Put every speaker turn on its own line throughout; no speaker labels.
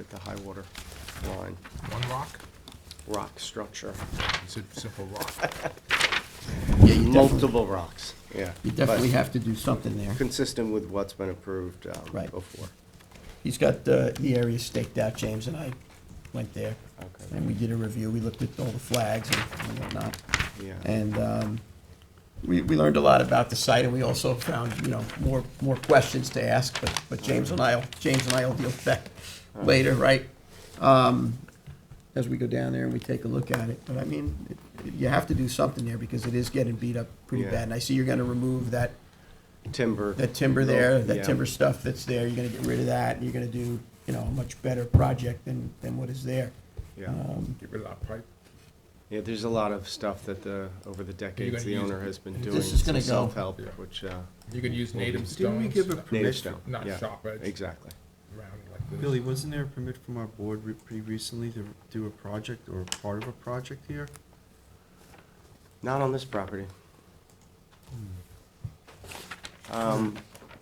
at the high water line,
One rock?
rock structure.
Is it simple rock?
Yeah, you definitely,
Multiple rocks, yeah.
you definitely
But
have to do something there.
Consistent with what's been approved um,
Right.
before.
He's got uh, the area staked out, James and I went there.
Okay.
And we did a review, we looked at all the flags and and whatnot.
Yeah.
And um, we, we learned a lot about the site, and we also found, you know, more, more questions to ask, but, but James and I'll, James and I'll deal with that later, right? Um, As we go down there and we take a look at it, but I mean, it- you have to do something there, because it is getting beat up pretty
Yeah.
bad. And I see you're gonna remove that,
Timber.
that timber there, that
Yeah.
timber stuff that's there, you're gonna get rid of that, and you're gonna do, you know, a much better project than, than what is there.
Yeah,
Get rid of that pipe.
yeah, there's a lot of stuff that the, over the decades, the
use-
owner has been doing.
This is gonna
some
go.
Self-help,
Yeah.
which, uh,
You could use native
Didn't
stones.
we give a
native
permit,
stone.
Not
yeah,
sharp edge.
Exactly.
Round like this.
Billy, wasn't there a permit from our board re- pretty recently to do a project or part of a project here?
Not on this property. Um,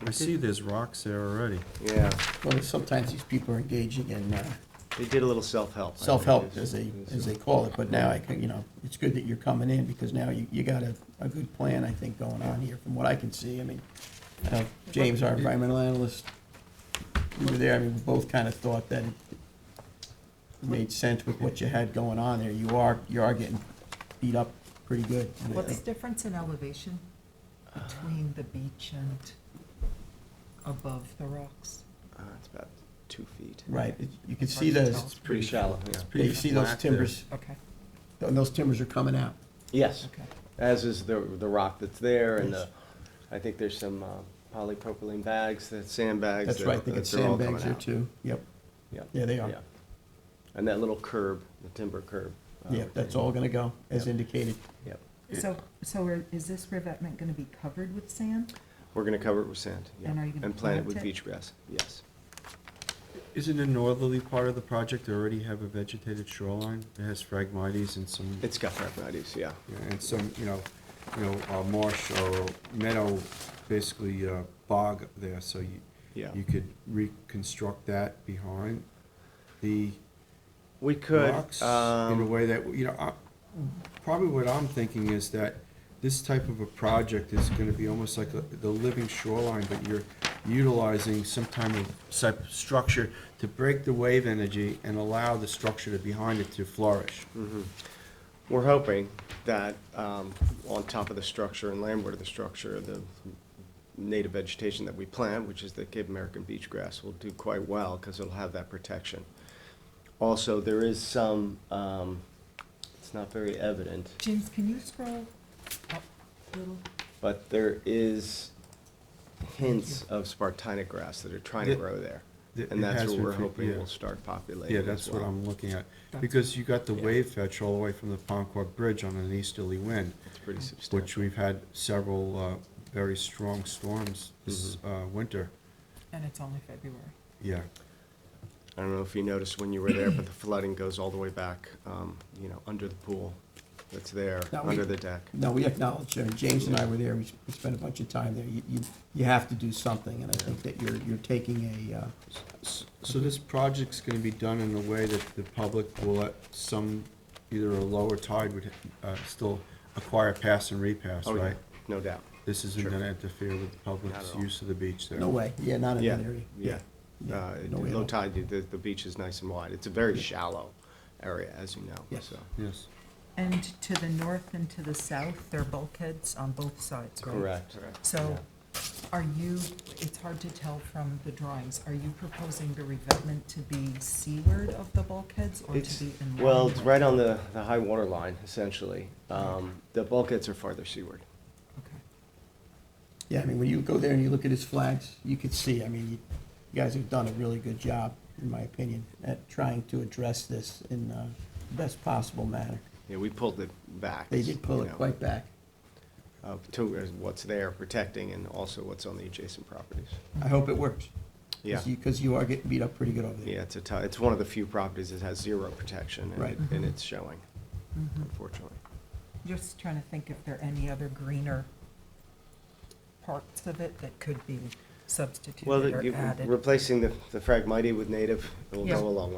I see there's rocks there already.
yeah,
Well, sometimes these people are engaging in uh,
they did a little self-help. I think,
self-help,
is-
as they,
is-
as they call it, but now, I, can- you know, it's good that you're coming in, because now you, you got a, a good plan, I think, going on here, from what I can see, I mean, I know James, our environmental analyst, we were there, I mean, we both kind of thought that it made sense with what you had going on there, you are, you are getting beat up pretty good. and I
What's
think-
difference in elevation
Uh-huh.
between the beach and above the rocks?
Uh, it's about two feet.
Right, it- you can see
Hard to
those,
tell.
Pretty shallow, yeah.
you see those
flat there.
timbers,
Okay,
and those timbers are coming out.
Yes,
okay.
as is the, the rock that's there and the, I think there's some uh, polypropylene bags, that sandbags.
That's
that-
right, they
that
got
they're all
sandbags
coming
there
out.
too, yep.
Yep.
Yeah, they are.
Yeah. And that little curb, the timber curb. uh,
Yeah, that's all gonna go, as
Yeah.
indicated.
Yep.
So, so are- is this revetment gonna be covered with sand?
We're gonna cover it with sand. yeah.
And are you gonna
And plant it
plant
with
it?
beach grass, yes.
Isn't the northerly part of the project already have a vegetated shoreline? It has phragmites and some,
It's got phragmites, yeah.
yeah, and some, you know, you know, uh, marsh or meadow, basically uh, bog there, so you,
Yeah.
you could reconstruct that behind the
We could,
rocks in a
um,
way that, you know, I- probably what I'm thinking is that this type of a project is gonna be almost like a- the living shoreline, but you're utilizing some type of, type of structure to break the wave energy and allow the structure to behind it to flourish.
we're hoping that, um, on top of the structure and landward of the structure, the native vegetation that we plant, which is the Cape American beach grass, will do quite well because it'll have that protection. Also, there is some, um, it's not very evident,
James, can you scroll up a little?
but there is hints of Spartina grass that are trying to
It-
grow there.
it-
And
it
that's
has
what
been
we're
for-
hoping
yeah.
will start populating
Yeah,
as
that's what
well.
I'm looking at,
That's-
because you got the
Yeah.
wave fetch all the way from the Concord Bridge on an easterly wind,
It's pretty
which
substantial.
we've had several, uh, very strong storms this,
Mm-hmm.
uh, winter,
And it's only February.
yeah.
I don't know if you noticed when you were there, but the flooding goes all the way back, um, you know, under the pool that's there,
Now we-
under the deck.
No, we acknowledge, uh, James and I were there, we s- we spent a bunch of time there. You, you, you have to do something, and I think that you're, you're taking a, uh,
S- So this project's gonna be done in a way that the public will at some, either a lower tide would, uh, still acquire pass and repass,
Oh, yeah,
right?
no doubt.
This isn't
Sure.
gonna interfere with the
Not
public's
at all.
use of the beach there.
no way, yeah, not in
Yeah,
that area.
yeah.
Yeah,
Uh,
no way at
Low
all.
tide, the, the beach is nice and wide. It's a very shallow area, as you know,
Yes.
so.
Yes.
And to the north and to the south, there are bulkheads on both sides, right? So are you, it's hard to tell from the drawings, are you proposing the revetment to be seaward of the bulkheads or
It's,
to be inland?
well, it's right on the, the high water line, essentially. Um, the bulkheads are farther seaward.
Okay.
Yeah, I mean, when you go there and you look at his flags, you could see, I mean, you you guys have done a really good job, in my opinion, at trying to address this in, uh, the best possible manner.
Yeah, we pulled it back.
They did pull
you
it
know,
quite back.
uh, To uh, what's there protecting and also what's on the adjacent properties.
I hope it works.
Yeah.
Because you are getting beat up pretty good over there.
Yeah, it's a ti- it's one of the few properties that has zero protection, and
Right.
it, and it's showing,
Mhm.
unfortunately.
Just trying to think if there are any other greener parts of it that could be substituted
Well,
or
you-
added.
replacing the the fragmite with native, it'll
Yeah.
go a long way.